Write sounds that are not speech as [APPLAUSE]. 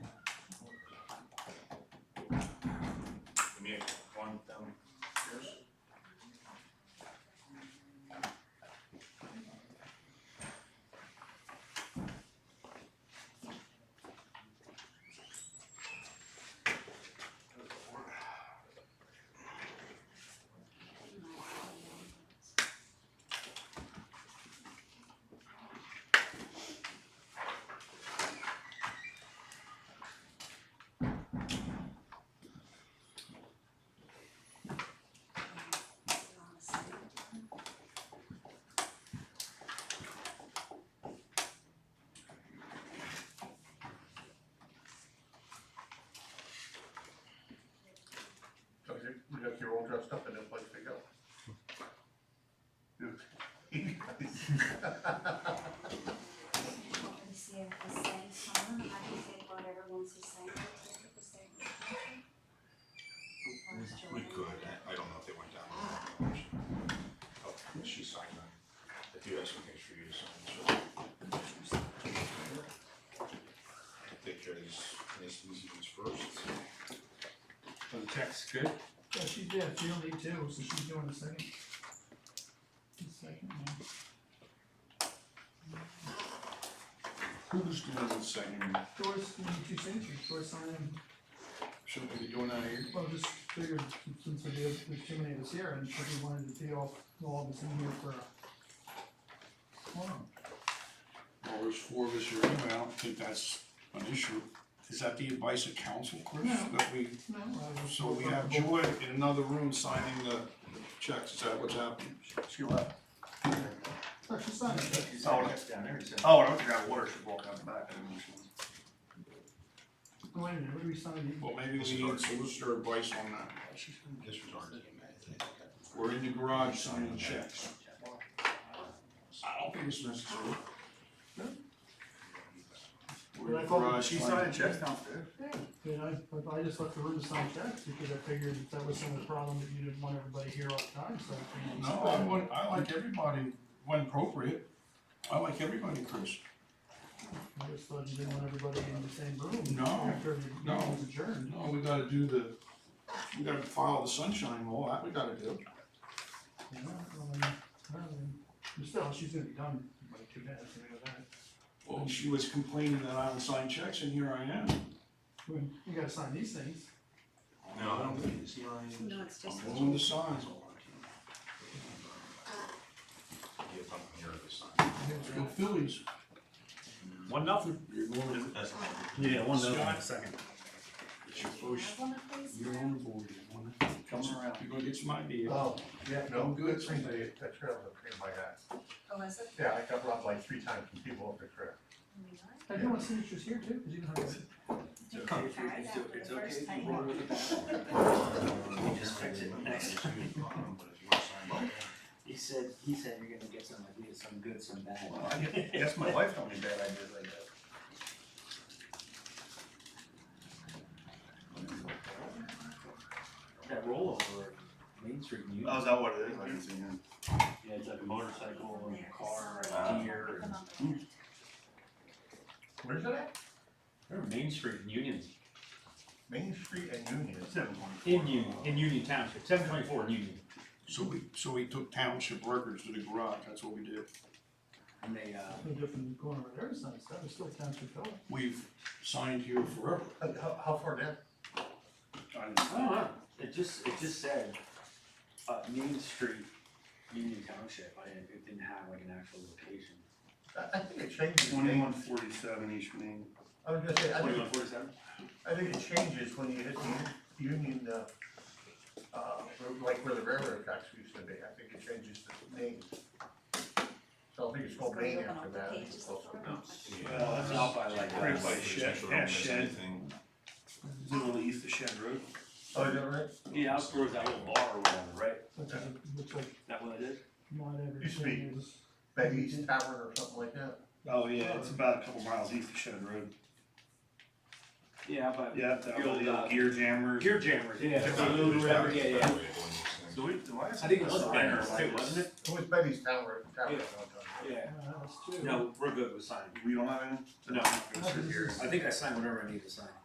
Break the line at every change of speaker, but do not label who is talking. Give me a one downstairs. So you, you got your all dressed up and then place to go.
Let me see if the same song, I can take whatever ones the same. the same. Where's
We
Jordan?
could, I don't know if they went down. or not. Oh, she signed that. If you have some things for you to sign, so. Take care of these, these ones first.
So the text good?
Yeah, she did, she only did two, so she's doing the second. The second one.
Who's doing the second?
Doris, you need two signatures, Doris signed,
Should we be doing that here?
well, just figured since we did, there's too many of us here and she wanted to deal, all of us in here for a. quorum.
Well, there's four of us here anyway, I don't think that's an issue. Is that the advice of council, Chris?
No.
That we,
No, I was.
so we have Joy in another room signing the checks, is that what's happening?
She left.
Oh, she signed it.
Oh, that's down there, Oh, I don't think water should walk out the back.
Wait a minute, what do we sign?
Well, maybe
This is
we need
ours.
solicitor advice on that.
This was our name, I think.
We're in the garage signing checks. I don't think it's necessary. We're in the garage signing.
checks downstairs.
Yeah, and I, but I just left the room to sign checks because I figured that that was some of the problem, that you didn't want everybody here all the time, so. I figured-
No, I want, I like everybody, when appropriate, I like everybody, Chris.
I just thought you didn't want everybody in the same room.
No,
After the
no.
meeting was adjourned.
No, we gotta do the, we gotta file the sunshine law, that we gotta do.
Yeah, well, then, well, then, but Still, she's gonna be done by two minutes, I know that.
Well, she was complaining that I don't sign checks, and here I am.
Well, You gotta sign these things.
No, I don't think it's mine.
No, it's just.
I'm willing to sign.
Yeah, if I'm here, they sign.
Let's go Phillies.
One nothing.
You're going,
That's not-
Yeah, one
Scott.
second.
it's your
Do you
first,
have one of these?
you're on the board, you wanna?
Come around.
You're gonna get some ideas.
Oh, yeah, no,
I'm good.
good, thing they, that trail was clean by that.
Oh, is it?
Yeah, I got robbed like three times from people up the trail.
Oh my God.
I do want signatures here too, cause you don't have.
Tried that for the first time.
We just fix it
[LAUGHS]
next. But if you want to sign it.
He said, he said you're gonna get some ideas, some good, some bad.
Yes, my wife told me bad ideas like that.
That rollover, at Main Street, you,
Oh, is that what it is? I didn't see him.
yeah, it's like a motorcycle and a car
Uh,
and a deer. and-
Put them on the left.
Where's it at?
Remember Main Street in Union?
Main Street and Union.
Seven twenty. In Union, in Union Township, seven twenty-four in Union.
So we, so we took township records to the garage, that's what we did.
And they, uh,
No different corner of there, it's nice, that was still township bill.
We've signed here forever.
How, how- how far down?
I don't know, it just, it just said, uh, Main Street, Union Township, I didn't, it didn't have like an actual location.
I, I think it changes.
Twenty-one forty-seven East Main.
I was gonna say, I think,
Twenty-one forty-seven?
I think it changes when you hit the Union, uh, uh, like where the railroad tracks used to be, I think it changes the name. So I think it's called Main
Open up
after
the
that.
pages of the room.
Well, that's
Out by like,
Right
uh,
by Shed, past Shed, literally east of Shed Road.
Oh, is that right?
yeah, out towards that little bar or whatever, right?
That doesn't, looks like
That what it is?
not every.
Used to be.
thing is-
Betty's Tavern or something like that.
Oh, yeah, it's about a couple miles east of Shed Road.
Yeah, out by.
Yeah, that
The old,
old
uh,
gear jammers.
Gear jammers, yeah.
Yeah, whatever, yeah, yeah.
So we-
I think it was Banners too, wasn't it?
It was Betty's Tavern, Tavern.
Yeah. Yeah.
Uh, that's two.
No, we're good with signing.
We don't have any?
No.
I'm gonna sit here.
I think I signed whatever I need to sign.